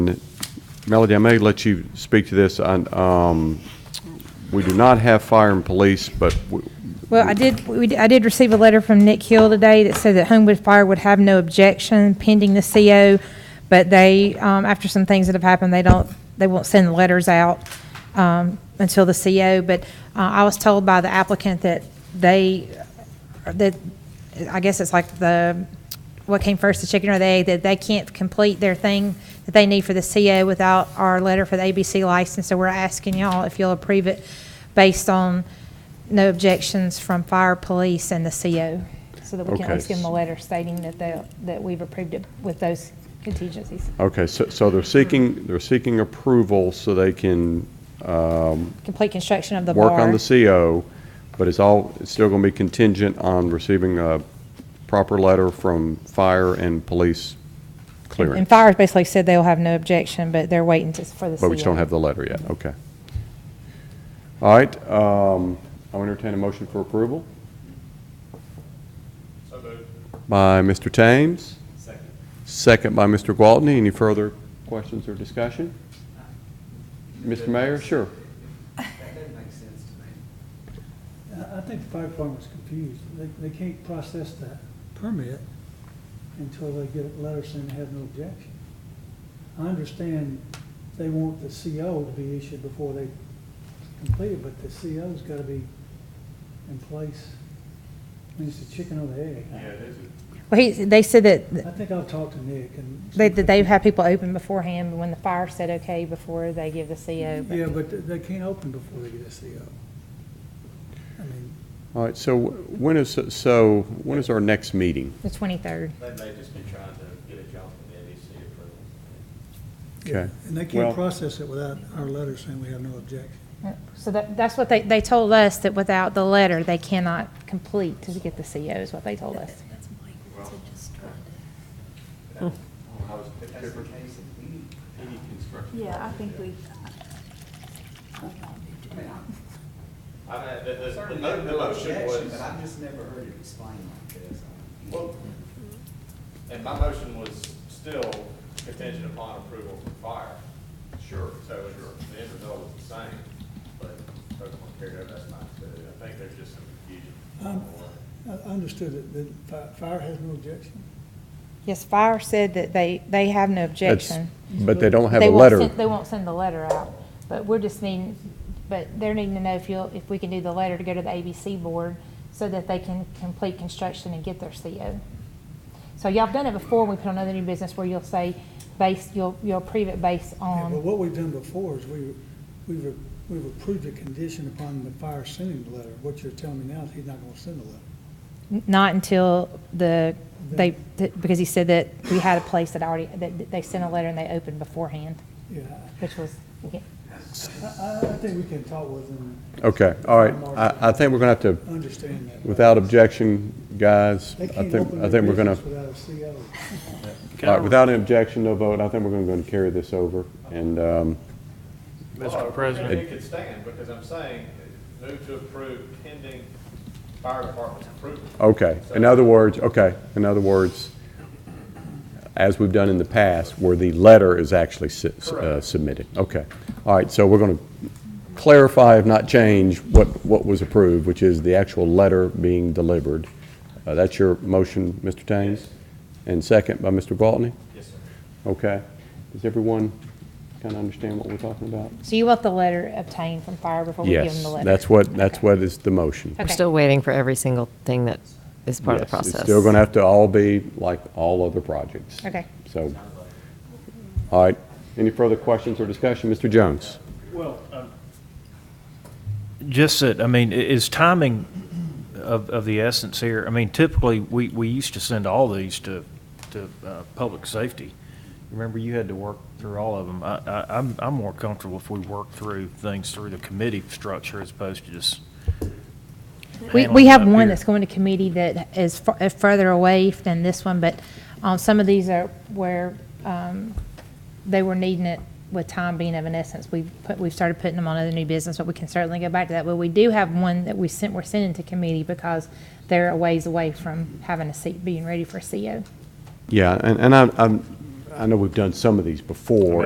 Melody, I may let you speak to this. I- um, We do not have fire and police, but w- Well, I did, we, did- I did receive a letter from Nick Hill today that said that Homewood Fire would have no objection pending the CO, but they, um, after some things that have happened, they don't, they won't send the letters out, um, until the CO, but, uh, I was told by the applicant that they, that, I guess it's like the, what came first, the chicken or the egg, that they can't complete their thing that they need for the CO without our letter for the ABC license, so we're asking y'all if you'll approve it based on no objections from fire, police, and the CO, so that we can at Okay. least give them a letter stating that they, that we've approved it with those contingencies, okay, so so they're seeking, they're seeking approval so they can complete construction of the bar. work on the CO, but it's all, it's still going to be contingent on receiving a proper letter from fire and police clearing. And fire's basically said they'll have no objection, but they're waiting to, for the CO. But we just don't have the letter yet, okay. All right, um, I'll entertain a motion for approval. By Mr. Thames. Second. Second by Mr. Gwaltney. Any further questions or discussion? Mr. Mayor, sure. That doesn't make sense to me. I I think the fire department's confused. They, they can't process that permit until they get a letter saying they have no objection. I understand they want the CO to be issued before they complete it, but the CO's gotta be in place. I mean, it's the chicken or the egg. Well, he, they said that, I think I'll talk to Nick and. They, that they've had people open beforehand, but when the fire said okay before they give the CO. but- Yeah, but they can't open before they get a CO. I mean, All right, so when is, so when is our next meeting? The twenty-third. They may have just been trying to get a job from the NEC approval. Okay. and they Well- can't process it without our letter saying we have no objection. So that, that's what they, they told us that without the letter, they cannot complete to get the CO is what they told us. That's my, to just try to. Oh, If that's the case, if we, any construction. Yeah, I think we. I mean, the, the- the, Certainly, mo- the no motion objection, was, But I've just never heard it explained like this. well, and my motion was still contingent upon approval from fire. Sure. So it's- the end result was the same, but folks want to carry over, that's not good. I think there's just some confusion. Um, I I understood that, that fi- fire has no objection. Yes, fire said that they, they have no objection. But they don't have They a won't letter. send- They won't send the letter out, but we're just needing, but they're needing to know if you'll, if we can do the letter to go to the ABC board so that they can complete construction and get their CO. So y'all have done it before, we put on other new business where you'll say, based, you'll, you'll approve it based Yeah, But on, what we've done before is we, we've, we've approved a condition upon the fire sending the letter. What you're telling me now is he's not gonna send the letter. not until the, they, because he said that we had a place that already, that they sent a letter and they opened beforehand, Yeah, which was, I, I, I think we can talk with him Okay, all right. I, I think we're going to have and understand that. to, without objection, guys, They I can't think, open I their think we're going to. business without a CO. All right, without an objection, no vote, I think we're going to go and carry this over, and, um, Well, Mr. President, It could stand, because I'm saying, move to approve pending fire department's approval. okay. In other words, okay, in other words, as we've done in the past, where the letter is actually su- uh, submitted. Okay. All right, so we're going to clarify, if not change, what, what was approved, which is the actual letter being delivered. Uh, That's your motion, Mr. Thames? And second by Mr. Gwaltney? Yes, sir. Okay. Does everyone kind of understand what we're talking about? so you want the letter obtained from fire before we give them the Yes, letter? that's what, that's what is the motion. Okay. We're still waiting for every single thing that is part of the Yes, process. It's still going to have to all be like all other projects. Okay. So, all right, any further questions or discussion? Mr. Jones? well, um, just that, I mean, i- is timing of, of the essence here? I mean, typically, we, we used to send all these to, to uh, public safety. Remember, you had to work through all of them. I, I, I'm, I'm more comfortable if we work through things through the committee structure as opposed to just. We, handling we it have up one here. that's going to committee that is fu- uh, further away than this one, but um, some of these are where um, they were needing it with time being of an essence. We've put, we've started putting them on other new business, but we can certainly go back to that. But we do have one that we sent, we're sending to committee because they're a ways away from having a seat, being ready for CO. Yeah, and, and I, I'm- I know we've done some of these before,